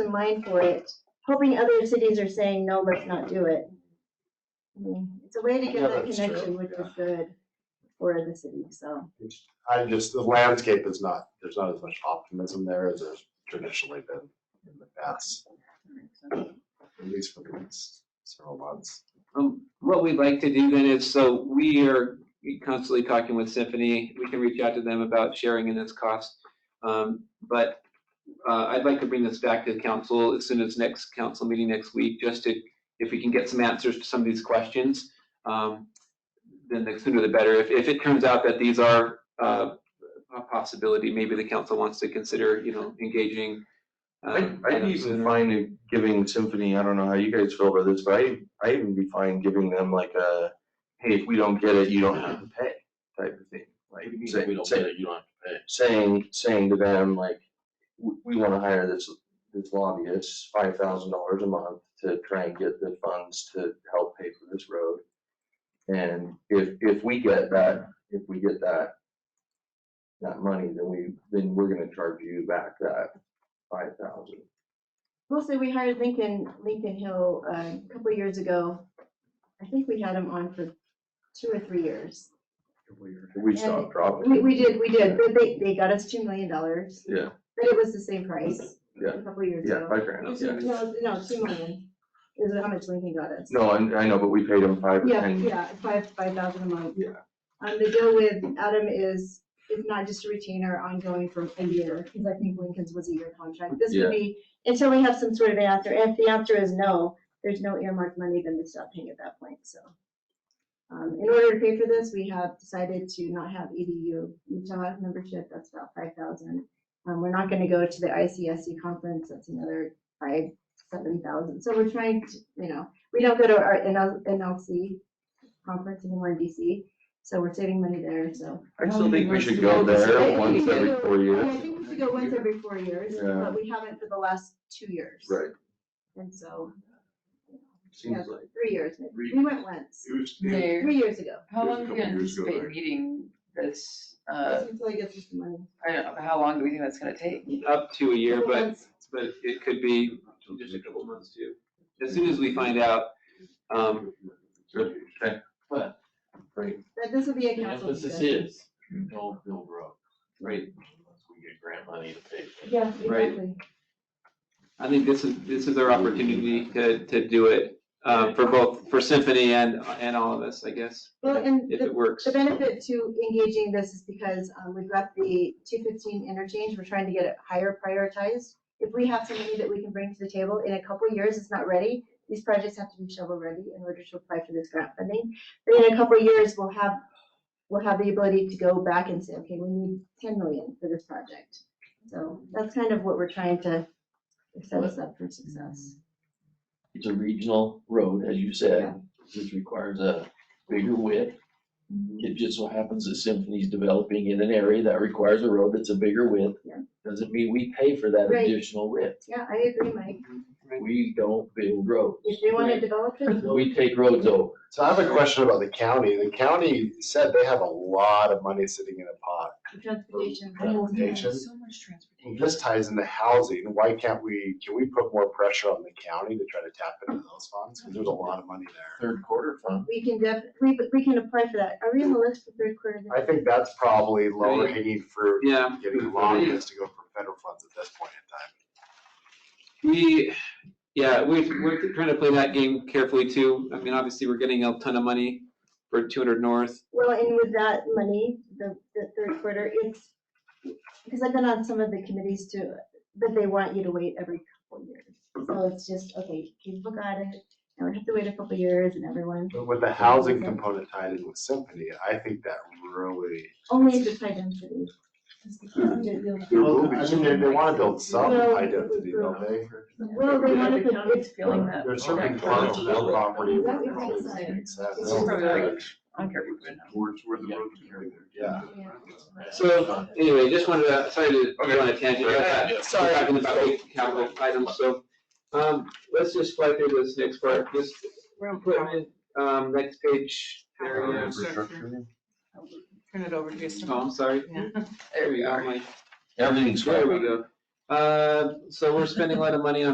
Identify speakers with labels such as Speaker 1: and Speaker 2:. Speaker 1: in mind for it, hoping other cities are saying, no, let's not do it. I mean, It's a way to
Speaker 2: Yeah,
Speaker 1: get that
Speaker 2: that's true,
Speaker 1: connection, which is good for the city, so.
Speaker 2: I just, the landscape is not, there's not as much optimism there as there's traditionally been in the past, at least for the next several months.
Speaker 3: Um, what we'd like to do then is, so we are constantly talking with Symphony. We can reach out to them about sharing in this cost. Um, but, uh, I'd like to bring this back to the council as soon as next council meeting next week, just to, if we can get some answers to some of these questions. Um, then the sooner the better. If, if it turns out that these are, uh, a possibility, maybe the council wants to consider, you know, engaging.
Speaker 4: I'd,
Speaker 3: um,
Speaker 4: I'd even find it giving Symphony, I don't know how you guys feel about this, but I, I even be fine giving them like a, hey, if we don't get it, you don't have to pay type of thing. Like, say- say-
Speaker 5: it, you don't have to pay.
Speaker 4: saying, saying to them like, we, we wanna hire this, this lobbyist, five thousand dollars a month to try and get the funds to help pay for this road. And if, if we get that, if we get that, that money, then we, then we're gonna charge you back that five thousand.
Speaker 1: Mostly, we hired Lincoln, Lincoln Hill uh, a couple years ago. I think we had him on for two or three years.
Speaker 4: We
Speaker 1: And
Speaker 4: stopped dropping.
Speaker 1: We, we did, we did, but they, they got us two million dollars.
Speaker 4: Yeah.
Speaker 1: But it was the same price.
Speaker 4: Yeah.
Speaker 1: A couple years
Speaker 4: Yeah,
Speaker 1: ago.
Speaker 4: five grand, yeah.
Speaker 1: No, no, two million is how much Lincoln got us.
Speaker 4: No, I, I know, but we paid him five or
Speaker 1: Yeah,
Speaker 4: ten.
Speaker 1: yeah, five, five thousand a month.
Speaker 4: Yeah.
Speaker 1: Um, the deal with Adam is, it's not just a retainer ongoing for a year, because I think Lincoln's was a year contract. This
Speaker 4: Yeah.
Speaker 1: would be, until we have some sort of an answer, if the answer is no, there's no earmarked money, then we stop paying at that point, so. Um, in order to pay for this, we have decided to not have EDU Utah membership, that's about five thousand. Um, we're not gonna go to the ICSC conference, that's another five, seven thousand, so we're trying to, you know, we don't go to our NL NLC conference anymore in DC, so we're saving money there, so.
Speaker 4: I still think we should go there once every four
Speaker 1: Yeah, I
Speaker 4: years.
Speaker 1: think we should go once every four years,
Speaker 4: Yeah.
Speaker 1: but we haven't for the last two years.
Speaker 4: Right,
Speaker 1: And so,
Speaker 4: seems like.
Speaker 1: three years, maybe.
Speaker 5: Three.
Speaker 1: we went once,
Speaker 5: It was, it
Speaker 6: Mayor,
Speaker 1: three years ago,
Speaker 6: how
Speaker 5: It was a
Speaker 6: long do we
Speaker 5: couple years ago,
Speaker 6: anticipate
Speaker 5: right?
Speaker 6: meeting this, uh,
Speaker 1: until I get some money.
Speaker 6: I don't know, how long do we think that's gonna take?
Speaker 3: Up to a year,
Speaker 1: Couple
Speaker 3: but
Speaker 1: months.
Speaker 3: but it could be just a couple months too. As soon as we find out, um,
Speaker 1: But this will be a
Speaker 5: the
Speaker 1: council
Speaker 5: emphasis
Speaker 1: discussion.
Speaker 5: is, no build road, right, unless we get grant money to pay. for it.
Speaker 1: Yeah,
Speaker 3: Right.
Speaker 1: exactly.
Speaker 3: I think this is, this is our opportunity to, to do it, um, for both, for Symphony and, and all of us, I guess,
Speaker 1: Well, and
Speaker 3: if
Speaker 1: the
Speaker 3: it works.
Speaker 1: The benefit to engaging this is because um, we've got the two fifteen interchange, we're trying to get it higher prioritized. If we have somebody that we can bring to the table in a couple of years, it's not ready, these projects have to be shovel ready in order to apply for this grant funding. But in a couple of years, we'll have, we'll have the ability to go back and say, okay, we need ten million for this project. So that's kind of what we're trying to set us up for success.
Speaker 5: It's a regional road, as you said, which requires a bigger width.
Speaker 1: Mm-hmm.
Speaker 5: It just so happens that Symphony's developing in an area that requires a road that's a bigger width.
Speaker 1: Yeah.
Speaker 5: Doesn't mean we pay for that
Speaker 1: Right.
Speaker 5: additional width.
Speaker 1: Yeah, I agree, Mike.
Speaker 5: We don't build roads.
Speaker 1: If they want to develop it,
Speaker 5: We take roads over.
Speaker 2: So I have a question about the county. The county said they have a lot of money sitting in a pot.
Speaker 1: transportation.
Speaker 2: Transportation.
Speaker 6: So much
Speaker 2: Well,
Speaker 6: transportation.
Speaker 2: This ties into housing. Why can't we, can we put more pressure on the county to try to tap into those funds? Because there's a lot of money there.
Speaker 5: Third quarter fund.
Speaker 1: We can def, we, we can apply for that. Are we on the list for third quarter?
Speaker 2: I think that's probably lower hanging fruit,
Speaker 3: Yeah,
Speaker 2: getting lobbyists to go for federal funds at this point in time.
Speaker 3: we, yeah, we're, we're trying to play that game carefully too. I mean, obviously, we're getting a ton of money for two hundred north.
Speaker 1: Well, and with that money, the, the third quarter, it's, because I've been on some of the committees too, but they want you to wait every couple years. So it's just, okay, people got it, now we have to wait a couple years and everyone,
Speaker 2: But With the housing component tied in with Symphony, I think that really.
Speaker 1: only if it's high density.
Speaker 2: Well, I mean, they, they wanna build some
Speaker 1: Well,
Speaker 2: high density, don't they?
Speaker 1: Well, they want to, it's feeling that.
Speaker 2: There's certain parts of that property. where it doesn't make sense.
Speaker 6: This is probably like- I don't care if we win.
Speaker 2: Towards where the road. Yeah.
Speaker 3: So anyway, just wanted to, sorry to go on a tangent. about that.
Speaker 2: Sorry.
Speaker 3: Talking about capital items, so, um, let's just fly through this next part, just, we're gonna put in, um, next page. There we go.
Speaker 6: Turn it over to you.
Speaker 3: Oh, I'm sorry.
Speaker 6: There we are.
Speaker 3: Mike.
Speaker 4: Everything's
Speaker 3: There we go. Uh, so we're spending a lot of money on